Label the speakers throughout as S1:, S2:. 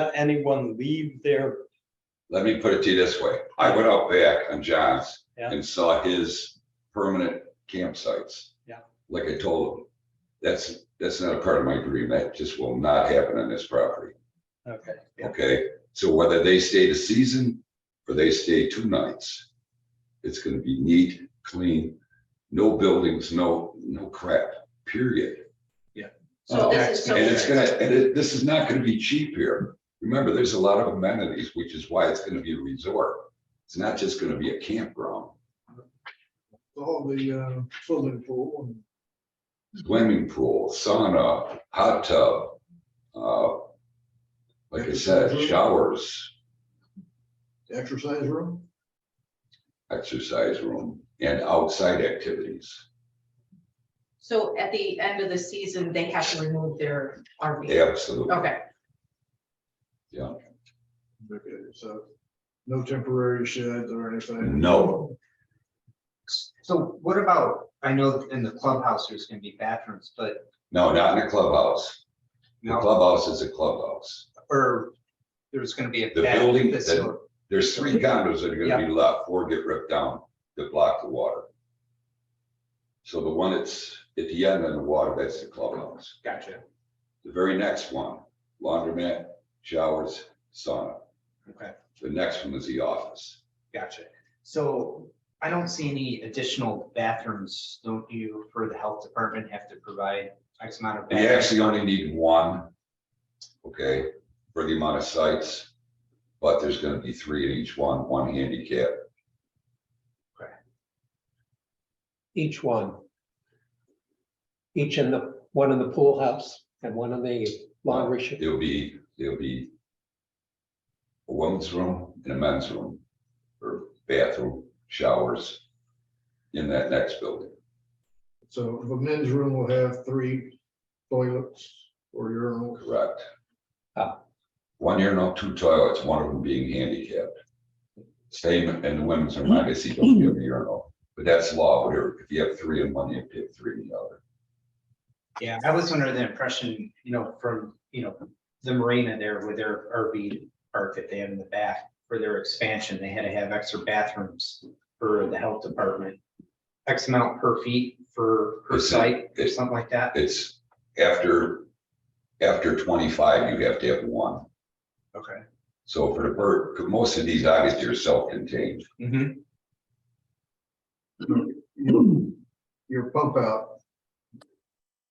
S1: let anyone leave their,
S2: Let me put it to you this way. I went out back on John's
S1: Yeah.
S2: and saw his permanent campsites.
S1: Yeah.
S2: Like I told him, that's, that's not a part of my dream. That just will not happen on this property.
S1: okay, yeah,
S2: Okay, so whether they stay the season or they stay two nights, it's gonna be neat, clean, no buildings, no, no crap, period.
S3: So this is
S2: And it's
S3: something,
S2: gonna, and it, this is not gonna be cheap here. Remember, there's a lot of amenities, which is why it's gonna be a resort. It's not just gonna be a campground,
S4: all the uh, swimming pool and
S2: swimming pool, sauna, hot tub. uh, Like I said, showers,
S4: the exercise room.
S2: exercise room, and outside activities.
S3: so at the end of the season, they have to remove their RV.
S2: Absolutely.
S3: Okay,
S4: Okay, so no temporary sheds or anything.
S2: No.
S5: So what about, I know in the clubhouse, there's gonna be bathrooms, but
S2: No, not in a clubhouse. The
S5: no,
S2: clubhouse is a clubhouse.
S5: or there's gonna be a.
S2: The
S5: bathroom
S2: building that-
S5: facility.
S2: There's three condos that are gonna be left, four get ripped down to block the water. So the one that's at the end of the water, that's the clubhouse.
S5: Gotcha,
S2: The very next one, laundromat, showers, sauna.
S5: okay,
S2: The next one is the office.
S5: gotcha. So I don't see any additional bathrooms, don't you, for the health department have to provide X amount of?
S2: We
S5: bathrooms?
S2: actually only need one, okay, for the amount of sites, but there's gonna be three in each one, one handicap.
S6: each one. Each in the, one in the pool house and one in the laundry. shed.
S2: It'll be, it'll be a woman's room and a men's room, or bathroom, showers in that next building.
S4: So the men's room will have three toilets or urinals.
S2: Correct.
S6: Ah.
S2: One urinal, two toilets, one of them being handicapped. Same in the women's room, I guess you don't have a urinal, but that's law, whatever, if you have three in one, you have to have three in the other.
S5: Yeah, I was under the impression, you know, from, you know, the marina there with their RV park that they have in the back for their expansion, they had to have extra bathrooms for the health department. X amount per feet for per
S2: It's-
S5: site or
S2: it's-
S5: something like that.
S2: It's after, after twenty-five, you have to have one.
S5: Okay.
S2: So for the bird, most of these obviously are self-contained.
S5: Mhm.
S4: Your pump out.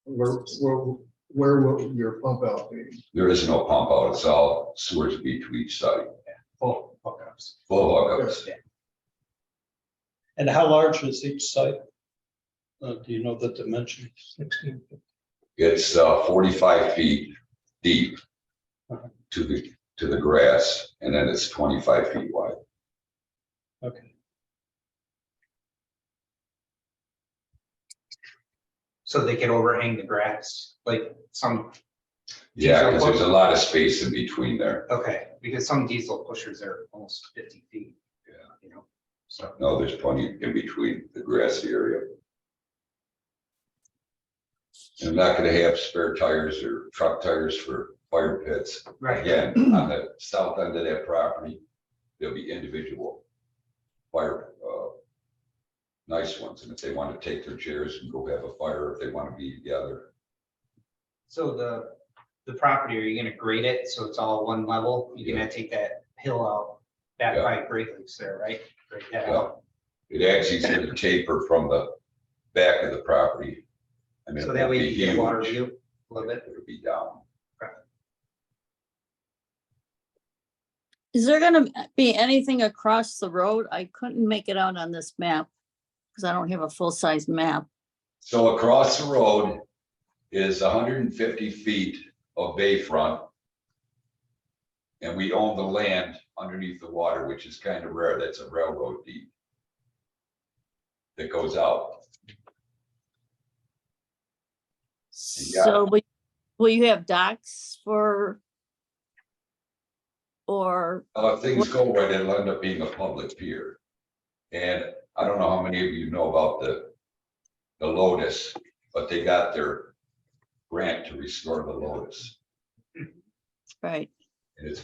S4: Where, where, where will your pump out be?
S2: There is no pump out, it's all sewers be to each site,
S5: Full hookups.
S2: full hookups.
S1: and how large is each site? Uh, do you know the dimensions?
S6: Sixteen.
S2: It's uh, forty-five feet deep
S1: Okay.
S2: to the, to the grass, and then it's twenty-five feet wide.
S1: Okay,
S5: So they could overhang the grass, like some,
S2: Yeah, because
S5: Diesel
S2: there's a lot of space in between there.
S5: okay, because some diesel pushers are almost fifty feet.
S2: Yeah.
S5: You know, so.
S2: No, there's plenty in between the grassy area. I'm not gonna have spare tires or truck tires for fire pits. Again, on the south end of that property, there'll be individual fire, uh, nice ones, and if they want to take their chairs and go have a fire, if they want to be together,
S5: So the, the property, are you gonna grade it so it's all one level? You're gonna take that hill out back
S2: Yeah.
S5: by Great Lakes there, right? Grade that out.
S2: well, it actually is gonna taper from the back of the property. I mean,
S5: So that way
S2: it'll
S5: you
S2: be
S5: can get water
S2: huge.
S5: view a little bit.
S2: It'll be down.
S7: Is there gonna be anything across the road? I couldn't make it out on this map because I don't have a full-size map.
S2: So across the road is hundred and fifty feet of bayfront. And we own the land underneath the water, which is kind of rare. That's a railroad deed. That goes out. Yeah.
S7: So will- will you have docks for? Or,
S2: Uh, If things go right, it'll end up being a public pier. And I don't know how many of you know about the, the Lotus, but they got their grant to restore the Lotus.
S7: right?
S2: And it's